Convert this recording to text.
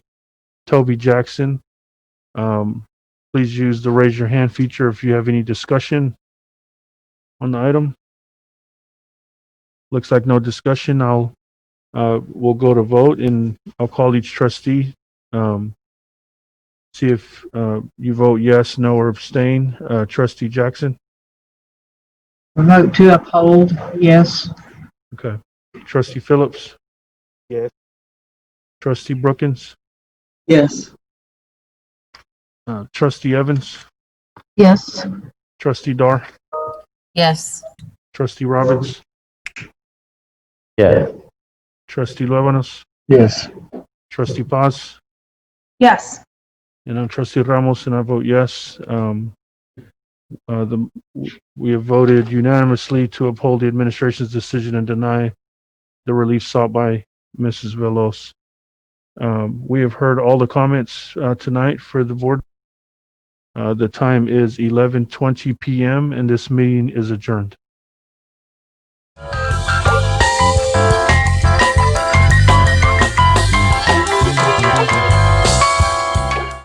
Toby Jackson. Um, please use the raise your hand feature if you have any discussion on the item. Looks like no discussion. I'll uh, we'll go to vote and I'll call each trustee. Um, see if uh, you vote yes, no, or abstain. Uh, trustee Jackson. Vote to uphold, yes. Okay. Trustee Phillips. Yes. Trustee Brookins. Yes. Uh, trustee Evans. Yes. Trustee Dar. Yes. Trustee Robbins. Yes. Trustee Luébanos. Yes. Trustee Paz. Yes. And I'm Trustee Ramos, and I vote yes. Um, uh, the, we have voted unanimously to uphold the administration's decision and deny the relief sought by Mrs. Velos. Um, we have heard all the comments, uh, tonight for the board. Uh, the time is eleven twenty PM and this meeting is adjourned.